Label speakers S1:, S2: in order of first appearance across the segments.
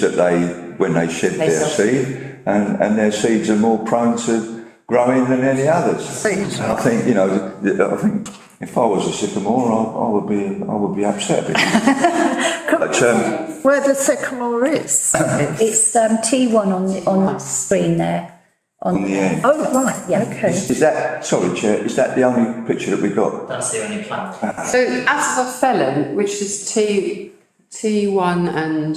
S1: that they, when they shed
S2: They
S1: their
S2: sell-
S1: seed, and, and their seeds are more prone to growing than any others.
S2: Seeds.
S1: I think, you know, th- I think if I was a sycamore, I, I would be, I would be upset. But, um,
S3: where the sycamore is.
S2: It's um, T1 on the, on the screen there.
S1: on the end,
S3: Oh, right,
S2: Yeah.
S3: okay.
S1: is that, sorry, Chair, is that the only picture that we got?
S4: That's the only plan.
S5: So as a felon, which is T, T1 and,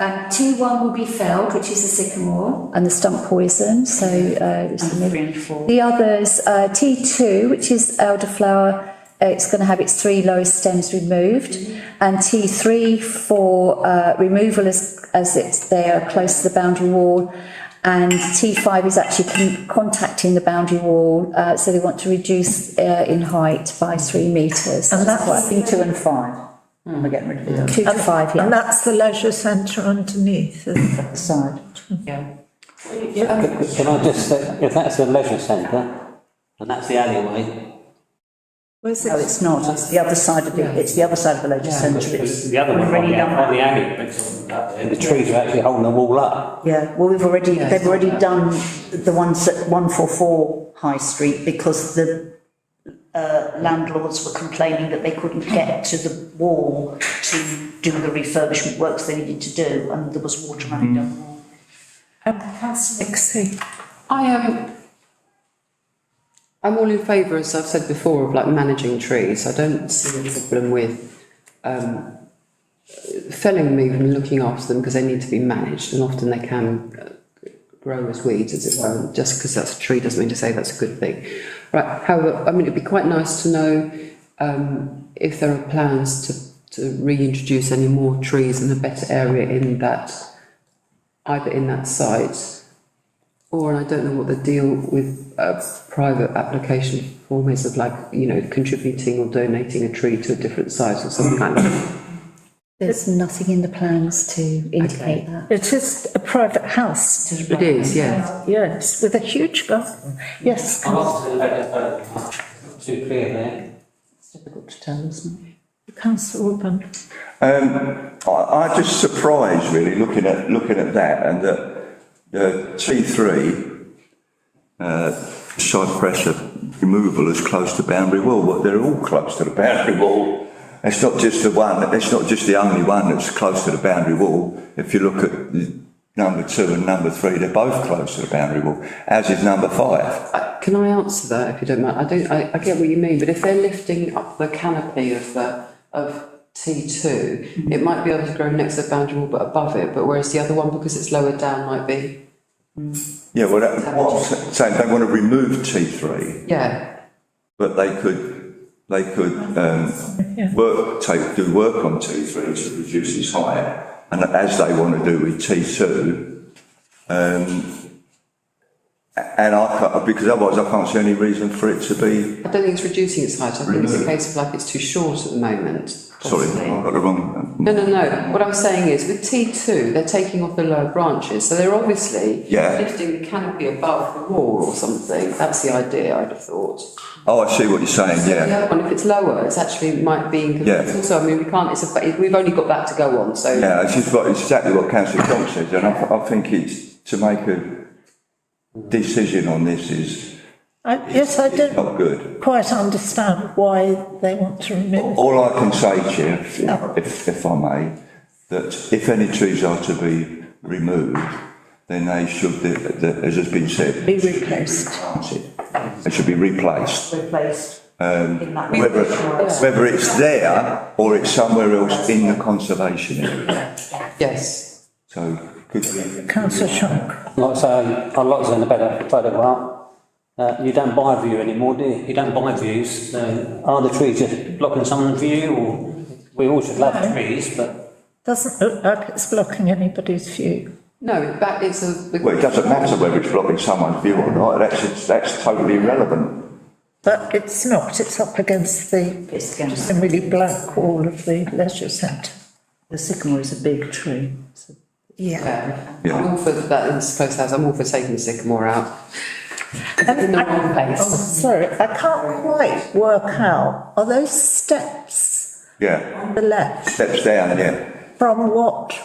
S2: Um, T1 will be felled, which is the sycamore. And the stump poison, so. Uh, it's the middle. The others, uh, T2, which is elderflower, uh, it's going to have its three lowest stems removed.
S3: Mm-hmm.
S2: And T3 for uh, removal as, as it's, they are close to the boundary wall. And T5 is actually con- contacting the boundary wall, uh, so they want to reduce uh, in height by three metres.
S3: And that's
S2: two and five. We're getting rid of them. Two to five, yeah.
S3: And that's the leisure centre underneath. isn't it?
S2: Side.
S6: Can I just say, if that's the leisure centre, and that's the alleyway,
S3: Where's
S7: No,
S3: it?
S7: it's not, it's the other side of the, it's the other side of the leisure centre, it's,
S6: the other one, on the, on the alley, it's up there. the trees are actually holding the wall up.
S7: yeah, well, we've already, they've already done the ones at one four four High Street because the uh, landlords were complaining that they couldn't get to the wall to do the refurbishment works they needed to do, and there was water running down the wall.
S3: Um, Nixie.
S5: I am, I'm all in favour, as I've said before, of like managing trees. I don't see a problem with, um, felling them and looking after them because they need to be managed and often they can uh, grow as weeds, as it were. Just because that's a tree doesn't mean to say that's a good thing. Right, however, I mean, it'd be quite nice to know, um, if there are plans to, to reintroduce any more trees in a better area in that, either in that site or, and I don't know what the deal with a private application form is of like, you know, contributing or donating a tree to a different site or something like that.
S2: There's nothing in the plans to indicate that.
S3: It is a private house,
S5: It is, yeah.
S3: yes, with a huge garden. Yes,
S6: I'm not too, uh, too clear there.
S7: It's difficult to tell, isn't it?
S3: councillor Urban.
S1: Um, I, I just surprised really looking at, looking at that and that, uh, T3, uh, cypress of removal is close to boundary wall, Well, they're all close to the boundary wall. It's not just the one, it's not just the only one that's close to the boundary wall. If you look at the number two and number three, they're both close to the boundary wall, as is number five.
S5: I- Can I answer that if you don't mind? I don't, I, I get what you mean, but if they're lifting up the canopy of the, of T two, it might be able to grow next to the boundary wall but above it, but whereas the other one, because it's lower down, might be,
S1: Yeah, well, that, what I'm sa- saying, they want to remove T3.
S5: yeah.
S1: But they could, they could, um, work, take, do work on T three to reduce its height. And as they want to do with T two, um, a- and I can't, because otherwise I can't see any reason for it to be,
S5: I don't think it's reducing its height, I think it's a case of like it's too short at the moment.
S1: sorry,
S5: possibly.
S1: I've got the wrong.
S5: No, no, no, what I'm saying is with T2, they're taking off the lower branches, so they're obviously
S1: Yeah.
S5: lifting the canopy above the wall or something, that's the idea, I'd have thought.
S1: Oh, I see what you're saying,
S5: The
S1: yeah,
S5: other one, if it's lower, it's actually might be inconvenient,
S1: Yeah.
S5: also, I mean, we can't, it's a, we've only got that to go on, so.
S1: yeah, it's just what, exactly what councillor John says, and I, I think it's, to make a decision on this is,
S3: I- Yes, I
S1: is
S3: don't
S1: not good.
S3: quite understand why they want to remove.
S1: All I can say, Chair,
S3: Oh.
S1: if- if, if I may, that if any trees are to be removed, then they should, the- the- as has been said.
S3: Be replaced.
S1: replanted. They should be replaced.
S7: Replaced in that.
S1: Whether, whether it's there or it's somewhere else in the conservation area.
S5: Yes,
S1: So could we?
S3: Councillor Shock.
S6: Like I say, I like saying a better photo art. Uh, you don't buy view anymore, do you? You don't buy views, so are the trees just blocking someone's view or? We all should love trees, but
S3: Doesn't look like it's blocking anybody's view.
S5: no, in fact, it's a.
S1: Well, it doesn't matter whether it's blocking someone's view or not, that's, that's totally irrelevant.
S3: But it's not, it's up against the,
S7: It's against,
S3: the really black wall of the leisure centre.
S7: the sycamore is a big tree, so
S3: Yeah.
S5: Yeah,
S1: Yeah.
S5: I'm all for that, in close house, I'm all for taking the sycamore out. In the wrong
S3: Oh,
S5: place.
S3: sorry, I can't quite work out, are those steps
S1: Yeah,
S3: on the left
S1: steps down, yeah.
S3: from what